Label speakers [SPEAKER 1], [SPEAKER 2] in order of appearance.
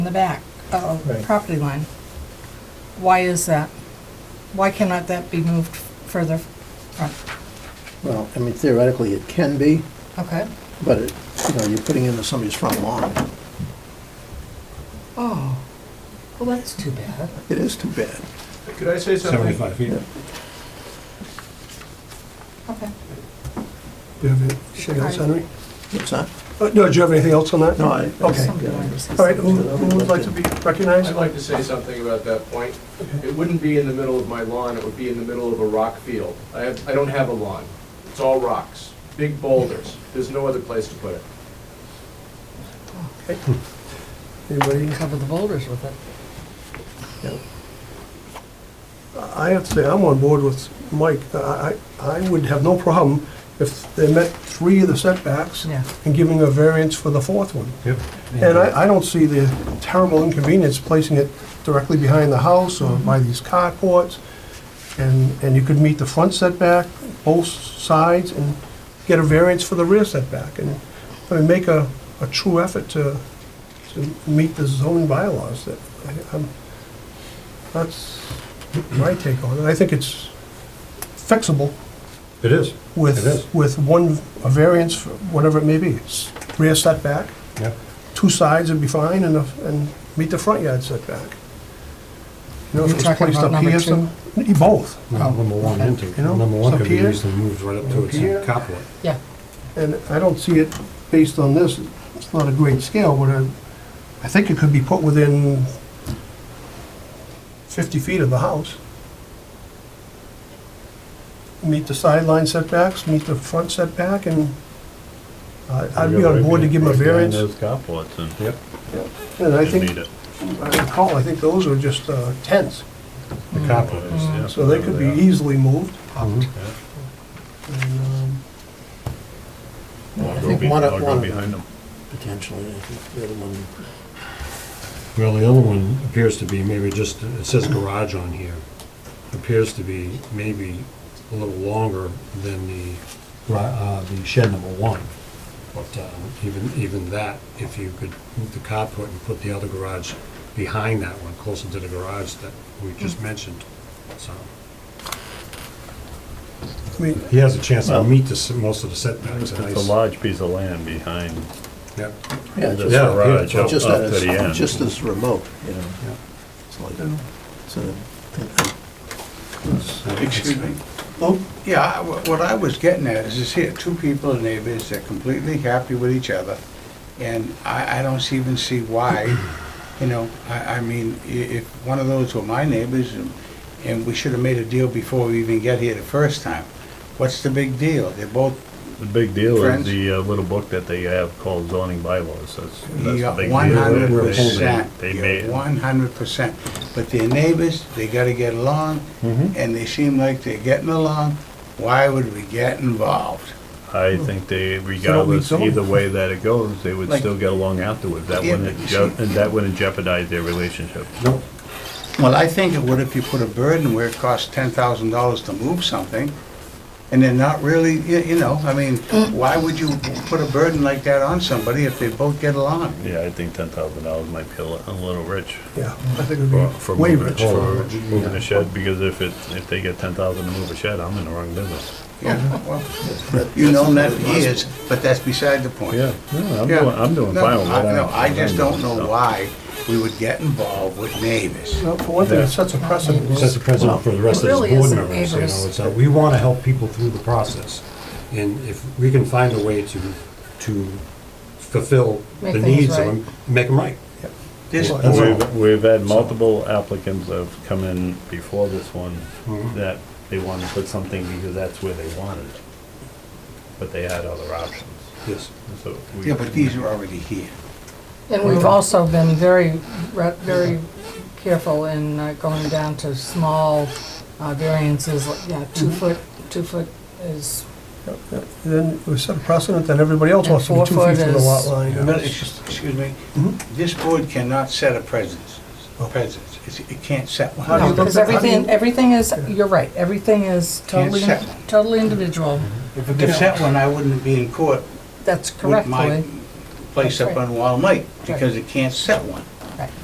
[SPEAKER 1] in the back of the
[SPEAKER 2] Right.
[SPEAKER 1] property line. Why is that? Why cannot that be moved further front?
[SPEAKER 2] Well, I mean theoretically it can be,
[SPEAKER 1] Okay.
[SPEAKER 2] but it, you know, you're putting into somebody's front lawn.
[SPEAKER 1] Oh, well, that's too bad.
[SPEAKER 2] It is too bad.
[SPEAKER 3] Could I say something?
[SPEAKER 4] 75 feet.
[SPEAKER 1] Okay.
[SPEAKER 5] Do you have anything else, Henry?
[SPEAKER 2] What's that?
[SPEAKER 5] Uh, No, do you have anything else on that?
[SPEAKER 2] No, I. oh.
[SPEAKER 5] Okay.
[SPEAKER 1] Somebody wanted to say
[SPEAKER 5] All right,
[SPEAKER 1] something.
[SPEAKER 5] who who would like to be recognized?
[SPEAKER 3] I'd like to say something about that point. It wouldn't be in the middle of my lawn, it would be in the middle of a rock field. I have, I don't have a lawn. It's all rocks, big boulders. There's no other place to put it.
[SPEAKER 5] Anybody?
[SPEAKER 1] Cover the boulders with it.
[SPEAKER 5] I have to say, I'm on board with Mike. I, I I would have no problem if they met three of the setbacks
[SPEAKER 1] Yeah.
[SPEAKER 5] and giving a variance for the fourth one.
[SPEAKER 4] Yep.
[SPEAKER 5] And I, I don't see the terrible inconvenience placing it directly behind the house or by these carports. And, and you could meet the front setback, both sides, and get a variance for the rear setback. And, I mean, make a, a true effort to, to meet the zoning bylaws that, I- I'm, that's my take on it. I think it's fixable
[SPEAKER 4] It is. It is.
[SPEAKER 5] with, with one, a variance, for whatever it may be. It's Rear setback,
[SPEAKER 4] Yeah.
[SPEAKER 5] two sides would be fine and, the- and meet the front yard setback. You know, if
[SPEAKER 1] You're
[SPEAKER 5] it's
[SPEAKER 1] talking
[SPEAKER 5] placed
[SPEAKER 1] about
[SPEAKER 5] up
[SPEAKER 1] number
[SPEAKER 5] here,
[SPEAKER 1] two?
[SPEAKER 5] some, both.
[SPEAKER 4] Well, Number one
[SPEAKER 1] okay.
[SPEAKER 4] and two.
[SPEAKER 5] You know,
[SPEAKER 4] Number one
[SPEAKER 5] so
[SPEAKER 4] could be
[SPEAKER 5] here-
[SPEAKER 4] easily moved right up to its
[SPEAKER 5] Here-
[SPEAKER 4] carport.
[SPEAKER 1] Yeah.
[SPEAKER 5] And I don't see it based on this, it's not a great scale, but I, I think it could be put within fifty feet of the house. Meet the sideline setbacks, meet the front setback, and I- I'd be on board to give them Uh, a variance.
[SPEAKER 6] Those carports and
[SPEAKER 4] Yep.
[SPEAKER 5] And I
[SPEAKER 6] you
[SPEAKER 5] think,
[SPEAKER 6] need it.
[SPEAKER 5] I recall, I think those are just uh, tents,
[SPEAKER 4] The carport is,
[SPEAKER 6] Mm-hmm. Yeah,
[SPEAKER 5] so they could be
[SPEAKER 6] whatever are.
[SPEAKER 5] easily moved.
[SPEAKER 4] Mhm.
[SPEAKER 5] And, um,
[SPEAKER 2] I
[SPEAKER 6] Or go
[SPEAKER 2] think
[SPEAKER 6] be-
[SPEAKER 2] one-
[SPEAKER 6] or go
[SPEAKER 2] one-
[SPEAKER 6] behind them.
[SPEAKER 2] Potentially, I think the other one,
[SPEAKER 4] Well, the other one appears to be maybe just, it says garage on here, appears to be maybe a little longer than the, gra- uh, the shed number one. But um, even, even that, if you could move the carport and put the other garage behind that one, closer to the garage that we just
[SPEAKER 6] Hmm.
[SPEAKER 4] mentioned, so.
[SPEAKER 5] I mean,
[SPEAKER 4] He has a chance to
[SPEAKER 6] Well-
[SPEAKER 4] meet the, s- most of the setbacks.
[SPEAKER 6] It's
[SPEAKER 4] and
[SPEAKER 6] a
[SPEAKER 4] ice.
[SPEAKER 6] large piece of land behind
[SPEAKER 4] Yep.
[SPEAKER 2] yeah,
[SPEAKER 6] the
[SPEAKER 2] just,
[SPEAKER 4] Yeah,
[SPEAKER 6] garage
[SPEAKER 4] yeah,
[SPEAKER 6] up up
[SPEAKER 2] just that
[SPEAKER 6] to the
[SPEAKER 2] it's,
[SPEAKER 6] end.
[SPEAKER 2] just as remote, you know,
[SPEAKER 4] Yeah.
[SPEAKER 2] it's like, it's a- it's-
[SPEAKER 7] Excuse me? Well, yeah, I- wha- what I was getting at is this here, two people are neighbors, they're completely happy with each other, and I, I don't even see why, you know, I, I mean, i- if one of those were my neighbors, and- and we should have made a deal before we even get here the first time, what's the big deal? They're both,
[SPEAKER 6] The big deal is
[SPEAKER 7] Friends?
[SPEAKER 6] the uh, little book that they have called zoning bylaws, that's, that's
[SPEAKER 7] you
[SPEAKER 6] the
[SPEAKER 7] got
[SPEAKER 6] big
[SPEAKER 7] one hundred
[SPEAKER 6] deal. They-
[SPEAKER 7] percent,
[SPEAKER 6] They made,
[SPEAKER 7] one hundred percent, but they're neighbors, they gotta get along,
[SPEAKER 6] Mm-hmm.
[SPEAKER 7] and they seem like they're getting along, why would we get involved?
[SPEAKER 6] I think they, regardless,
[SPEAKER 5] zoning?
[SPEAKER 6] either way that it goes, they would
[SPEAKER 7] Like-
[SPEAKER 6] still get along afterwards. That
[SPEAKER 7] Yeah,
[SPEAKER 6] wouldn't,
[SPEAKER 7] but
[SPEAKER 6] je-
[SPEAKER 7] you see-
[SPEAKER 6] and that wouldn't jeopardize their relationship.
[SPEAKER 4] Nope.
[SPEAKER 7] Well, I think it would if you put a burden where it costs ten thousand dollars to move something, and they're not really, you you know, I mean, why would you put a burden like that on somebody if they both get along?
[SPEAKER 6] Yeah, I think ten thousand dollars might be a li- a little rich.
[SPEAKER 5] yeah, I think it
[SPEAKER 6] For
[SPEAKER 5] would
[SPEAKER 6] for
[SPEAKER 5] be way
[SPEAKER 6] moving,
[SPEAKER 5] rich
[SPEAKER 6] for
[SPEAKER 5] for,
[SPEAKER 6] moving a shed, because if it, if they get ten thousand to move a shed, I'm in the wrong business.
[SPEAKER 7] Yeah, well, you know that for years, but that's beside the point.
[SPEAKER 6] Yeah, no, I'm
[SPEAKER 7] Yeah.
[SPEAKER 6] doing, I'm doing
[SPEAKER 7] No,
[SPEAKER 6] fine with
[SPEAKER 7] I-
[SPEAKER 6] that.
[SPEAKER 7] No, I just don't know why we would get involved with neighbors.
[SPEAKER 5] Well, for one thing, it sets a precedent.
[SPEAKER 4] sets a precedent for the rest of
[SPEAKER 1] Well, it really
[SPEAKER 4] his board
[SPEAKER 1] isn't
[SPEAKER 4] members, you know,
[SPEAKER 1] neighbors.
[SPEAKER 4] it's, uh, we want to help people through the process. And if we can find a way to, to fulfill the
[SPEAKER 1] Make things
[SPEAKER 4] needs of
[SPEAKER 1] right.
[SPEAKER 4] them, make them right.
[SPEAKER 7] This,
[SPEAKER 4] That's all.
[SPEAKER 6] We've, we've had multiple applicants that have come in before this one, that they wanted to put something because that's where they wanted it. But they had other options,
[SPEAKER 4] Yes.
[SPEAKER 6] so. we-
[SPEAKER 7] yeah, but these are already here.
[SPEAKER 1] And we've also been very, re- very careful in uh, going down to small uh, variances, like, yeah, two
[SPEAKER 5] Mm-hmm.
[SPEAKER 1] foot, two foot is,
[SPEAKER 5] Then we set a precedent that everybody else
[SPEAKER 1] And
[SPEAKER 5] wants to be two
[SPEAKER 1] four
[SPEAKER 5] feet from the
[SPEAKER 1] foot
[SPEAKER 5] lot
[SPEAKER 1] is-
[SPEAKER 5] line. and
[SPEAKER 7] No,
[SPEAKER 5] that's
[SPEAKER 7] it's
[SPEAKER 5] just-
[SPEAKER 7] just- Excuse me,
[SPEAKER 5] Mhm.
[SPEAKER 7] this board cannot set a presence, presence. It's- It can't set one.
[SPEAKER 5] How do you
[SPEAKER 1] no,
[SPEAKER 5] look
[SPEAKER 1] because
[SPEAKER 5] at- how do
[SPEAKER 1] everything,
[SPEAKER 5] you-
[SPEAKER 1] everything is, you're right, everything is totally,
[SPEAKER 7] set.
[SPEAKER 1] totally individual.
[SPEAKER 7] If it could set one, I wouldn't be in court
[SPEAKER 1] That's
[SPEAKER 7] with my
[SPEAKER 1] correctly,
[SPEAKER 7] place up on Wall Lake, because it can't set one.